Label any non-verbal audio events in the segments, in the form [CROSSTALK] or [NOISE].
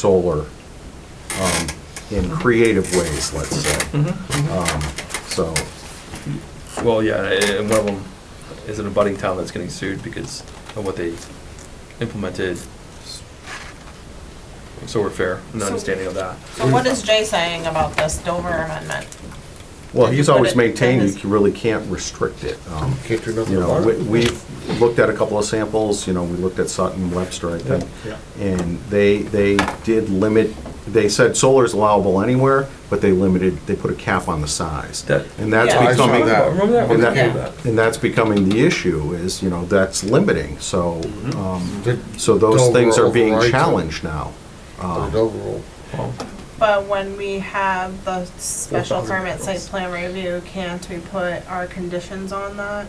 solar um, in creative ways, let's say. Um, So, Well, yeah, and one of them is an abutting town that's getting sued because of what they implemented. So we're fair, in the So- understanding of that. So what is Jay saying about this Dover amendment? well, he's always maintained That is- you really can't restrict it. Um, Can't do nothing You know, about we- it. we've looked at a couple of samples, you know, we looked at Sutton, Webster, I think. Yeah, And they, they did limit, they said solar is allowable anywhere, but they limited, they put a cap on the size. That- And that's Yeah. I saw becoming, that. Remember that? and Remember that, and that's becoming the issue is, you know, that's limiting, so, um, so those things are being challenged now. Um, Overall, Well, But when we have the special That's not permit site ridiculous. plan review, can't we put our conditions on that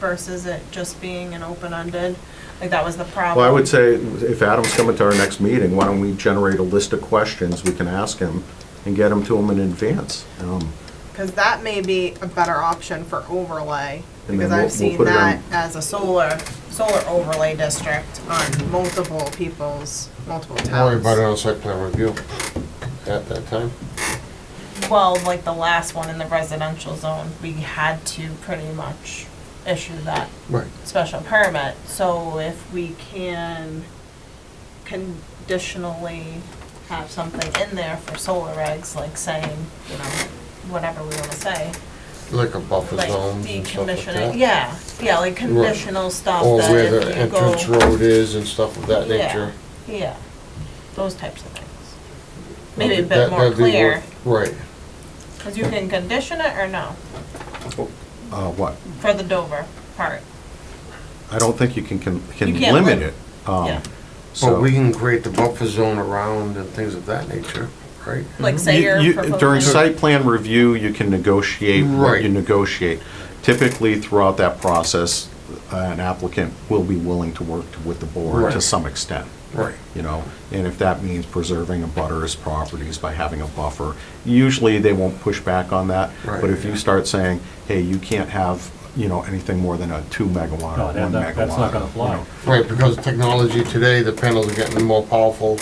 versus it just being an open-ended? Like that was the problem. Well, I would say, if Adam's coming to our next meeting, why don't we generate a list of questions we can ask him and get them to him in advance? Um, Cause that may be a better option for overlay, And then because we'll- I've we'll seen put it that on- as a solar, solar overlay district on multiple people's, multiple don't worry about it towns. on site plan review at that time. Well, like the last one in the residential zone, we had to pretty much issue that Right. special permit, so if we can conditionally have something in there for solar regs, like saying, you know, whatever we wanna say, Like a buffer like zones and stuff like decommissioning, that. yeah, yeah, like conditional stuff Or that where the if you go. entrance road is and stuff of that Yeah. nature. Yeah, those types of things. Maybe a That- bit more that'd be clear, worth- Right. cause you can condition it or no, Oh. uh, what? for the Dover part, I don't think you can, can can You can't limit lim- it. Um, yeah. So But we can create the buffer zone around and things of that nature, right? Like Mm-hmm. You- say you're you- proposing. During site plan review, you can negotiate what you Right. negotiate. Typically, throughout that process, an applicant will be willing to work with the board to Right. some extent, Right. you know? And if that means preserving a butter's properties by having a buffer, usually they won't push back on that. Right. But if you start saying, hey, you can't have, you know, anything more than a two megawatt No, or that- one megawatt. that- that's not gonna you fly. know. Right, because technology today, the panels are getting more powerful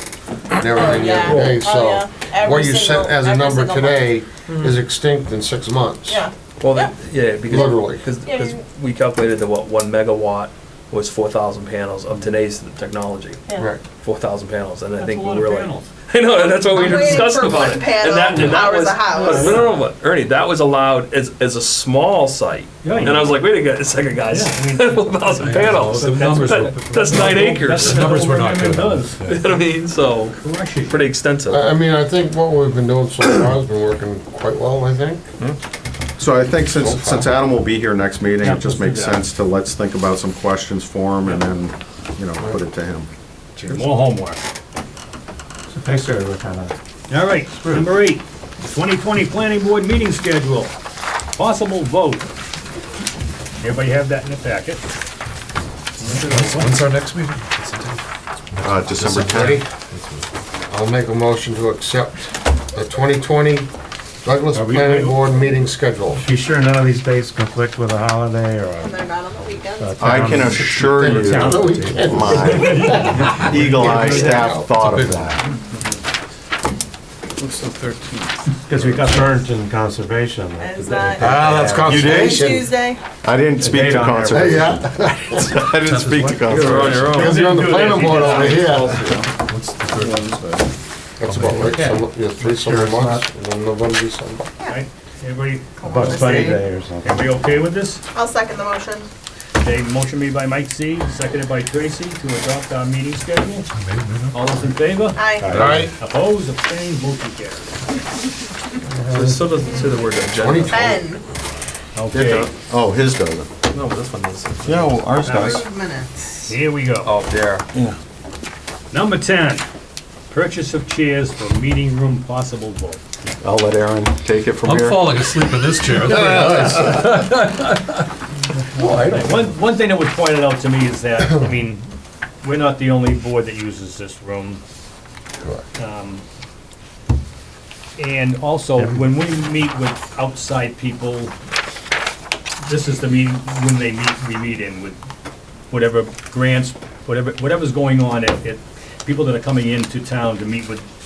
and everything the yeah. other day, Oh, yeah. so. Every What you single- set as a every number single one. today is extinct in six months. Yeah, Well, that- yeah, because. Literally. Because, Yeah, because you- we calculated that what, one megawatt was four thousand panels of today's technology. yeah. Right. Four thousand panels, and I That's think a we lot of were like. panels. [LAUGHS] I know, and that's what we I'm were waiting discussing for one about it. panel, And that, and that ours was. a house. No, no, no, but Ernie, that was allowed as, as a small site. Yeah, And yeah. I was like, wait a gu- a second, guys, Yeah, [LAUGHS] four thousand panels. The numbers were- [LAUGHS] That- That's nine acres. That's [LAUGHS] the You know numbers we're not good with. what I mean? So, We're actually, pretty extensive. I, I mean, I think what we've been doing so far has been working quite well, I think. So I think since, Profile. since Adam will be here next meeting, Yeah, it just let's makes do that. sense to, let's think about some questions for him and then, you know, put it to him. more homework. Thanks for your time. All right, number eight, 2020 Planning Board meeting schedule, possible vote. Everybody have that in the packet? When's our next meeting? Uh, December 10th. I'll make a motion to accept the 2020 Douglas Are we- Planning Board meeting schedule. Be sure none of these dates conflict with a holiday And or. they're not on the uh, weekends. I can assure you, No, we can't. my eagle-eye staff thought of that. Because we got burnt in conservation. Is that Ah, that's conservation. Tuesday? I didn't speak to Date on there. Hey, conservation. yeah, [LAUGHS] I didn't speak to You're on conservation. your own. because Oh, you're on the Didn't do planning that. board over here. Right. That's about right, so, yeah, three summer months, and then November, December. Everybody, Bugs Bunny Day or something. everybody okay with this? I'll second the motion. Okay, motion made by Mike C, seconded by Tracy to adopt our meeting schedule. All those in favor? Aye. All right, Opposed, abstained, motion carried. So it still doesn't say the word agenda. 2020. Ben, Okay, Oh, his doesn't. No, but this one does. Yeah, well, ours does. approved minutes. here we go. Oh, there. Number 10, purchase of chairs for meeting room possible vote. I'll let Aaron take it from I'm here. falling asleep in this chair. One, one thing that was pointed out to me is that, I mean, we're not the only board that uses this room. Um, And also, when we meet with outside people, this is the meeting, when they meet, we meet in with whatever grants, whatever, whatever's going on at, at people that are coming into town to meet with